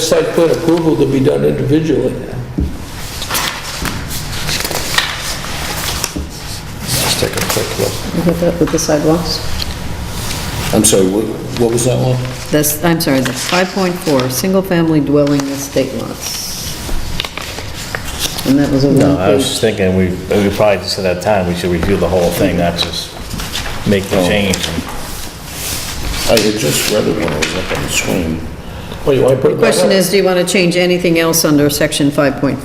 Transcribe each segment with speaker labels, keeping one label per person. Speaker 1: site plan approval to be done individually.
Speaker 2: Let's take a quick look.
Speaker 3: You got that with the sidewalks?
Speaker 2: I'm sorry, what what was that one?
Speaker 3: That's, I'm sorry, that's 5.4, single-family dwelling estate lots. And that was a
Speaker 4: No, I was just
Speaker 3: one-page.
Speaker 4: thinking, we, we probably just at that time, we should review the whole thing, not just make the change.
Speaker 2: I had just read it when I was up on the screen.
Speaker 1: Well, you want to put that
Speaker 3: Question
Speaker 1: up?
Speaker 3: is, do you want to change anything else under section 5.4?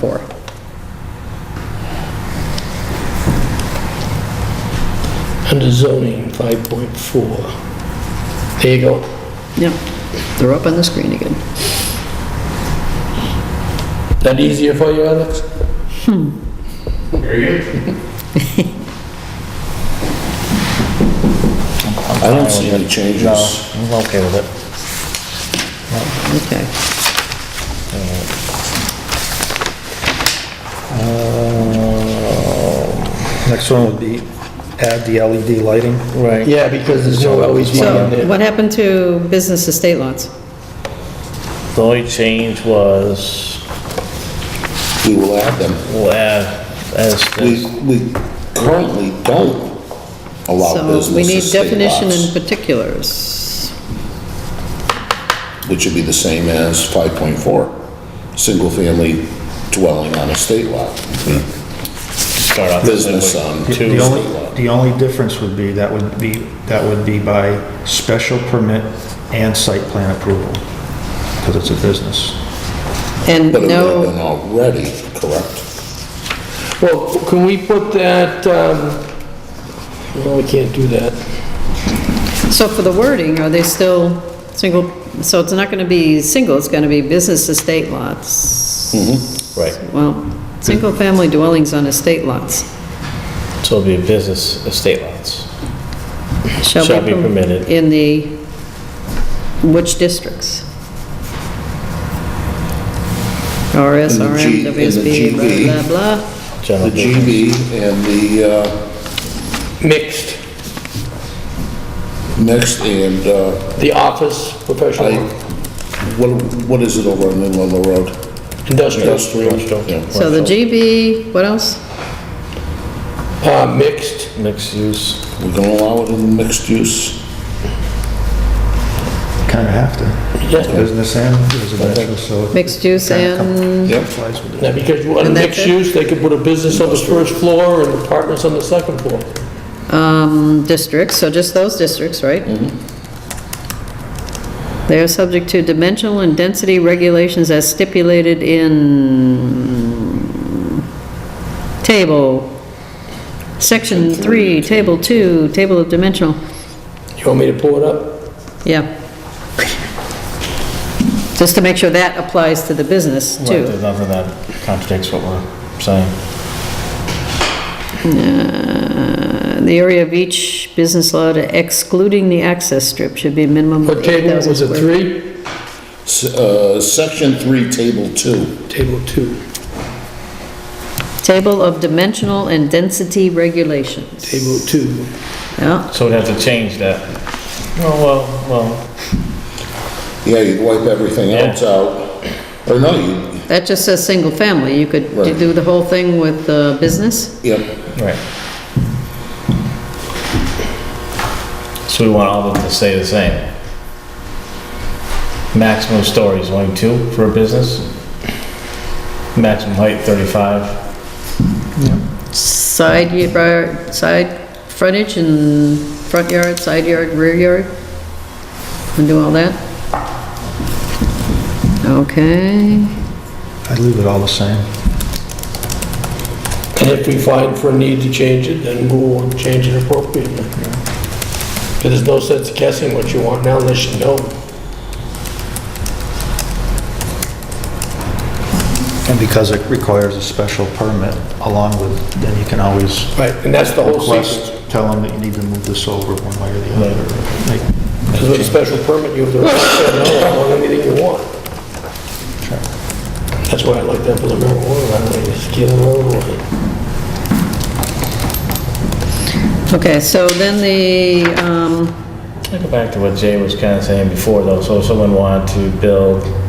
Speaker 1: Under zoning, 5.4. There you go.
Speaker 3: Yep, they're up on the screen again.
Speaker 1: That easier for you, Alex?
Speaker 2: I don't see any changes.
Speaker 4: No, Oh, I'm okay with it.
Speaker 3: Okay.
Speaker 5: Next one would be add the LED lighting.
Speaker 4: Right.
Speaker 1: Yeah, because there's no LED in
Speaker 3: So
Speaker 1: there.
Speaker 3: what happened to business estate lots?
Speaker 4: The only change was,
Speaker 2: We will add them.
Speaker 4: well, as,
Speaker 2: We,
Speaker 4: as,
Speaker 2: we currently don't allow
Speaker 3: So we
Speaker 2: business
Speaker 3: need
Speaker 2: estate
Speaker 3: definition and
Speaker 2: lots,
Speaker 3: particulars.
Speaker 2: which would be the same as 5.4, single-family dwelling on a state lot.
Speaker 4: start off.
Speaker 2: Business on
Speaker 5: The-
Speaker 4: Two.
Speaker 5: The only, the only difference would be, that would be, that would be by special permit and site plan approval, because it's a business.
Speaker 3: And
Speaker 2: But it would have
Speaker 3: no,
Speaker 2: been already, correct?
Speaker 1: Well, can we put that, um, well, we can't do that.
Speaker 3: so for the wording, are they still single, so it's not going to be single, it's going to be business estate
Speaker 2: Mm-hmm.
Speaker 3: lots?
Speaker 4: Right,
Speaker 3: Well, single-family dwellings on estate lots
Speaker 4: so it'll be a business estate lots.
Speaker 3: shall
Speaker 4: Shall be
Speaker 3: be permitted
Speaker 4: permitted.
Speaker 3: in the, which districts? RS,
Speaker 2: In the G-
Speaker 3: RM,
Speaker 2: in the
Speaker 3: WSB,
Speaker 2: GB.
Speaker 3: blah, blah, blah.
Speaker 2: The
Speaker 4: General business.
Speaker 2: GB and the, uh,
Speaker 1: Mixed,
Speaker 2: next, and, uh,
Speaker 1: the office, professional,
Speaker 2: I, what, what is it over on Inland Road?
Speaker 1: industrial,
Speaker 2: Industrial. Yeah.
Speaker 3: So the GB, what else?
Speaker 1: uh, mixed.
Speaker 4: Mixed use,
Speaker 2: We're gonna allow it in mixed use?
Speaker 3: Mm-hmm.
Speaker 5: Kind of have to.
Speaker 1: Yeah.
Speaker 5: It's Business and residential, so.
Speaker 3: Mixed use and,
Speaker 2: Yep.
Speaker 1: Now, because you want
Speaker 3: And that's
Speaker 1: mixed
Speaker 3: it?
Speaker 1: use, they could put a business on the first floor and apartments on the second floor.
Speaker 3: um, districts, so just those districts, right? They are subject to dimensional and density regulations as stipulated in table, section three, table two, table of dimensional,
Speaker 1: You want me to pull it up?
Speaker 3: yeah. Just to make sure that applies to the business
Speaker 4: Right,
Speaker 3: too.
Speaker 4: there's nothing that contradicts what we're saying.
Speaker 3: Uh, The area of each business lot excluding the access strip should be a minimum of
Speaker 1: What table,
Speaker 3: 8,000
Speaker 1: was it
Speaker 3: square
Speaker 1: three?
Speaker 2: S- uh, Section 3, Table 2.
Speaker 1: Table two,
Speaker 3: Table of dimensional and density regulations.
Speaker 1: table two.
Speaker 3: Yeah,
Speaker 4: So we'd have to change that. Oh, well, well,
Speaker 2: Yeah, you'd wipe everything
Speaker 4: Yeah.
Speaker 2: else out. Or no, you,
Speaker 3: that just says single family. You could
Speaker 2: Right.
Speaker 3: do the whole thing with uh, business?
Speaker 2: yep,
Speaker 4: right. So we want all of them to stay the same. Maximum stories, only two for a business. Maximum height, 35.
Speaker 3: Side yard, side frontage and front yard, side yard, rear yard? And do all that? Okay,
Speaker 5: I'd leave it all the same.
Speaker 1: And if we find for a need to change it, then we'll change it appropriately. Because there's no sense guessing what you want now unless you know.
Speaker 5: And because it requires a special permit along with, then you can always
Speaker 1: Right. And that's the whole
Speaker 5: request,
Speaker 1: secret.
Speaker 5: tell them that you need to move this over one way or the other. Make-
Speaker 1: Because with a special permit, you have the right to say no on anything you want. That's why I like that for the marijuana, I like to get it over with.
Speaker 3: okay, so then the, um,
Speaker 4: Can I go back to what Jay was kind of saying before, though? So if someone wanted to build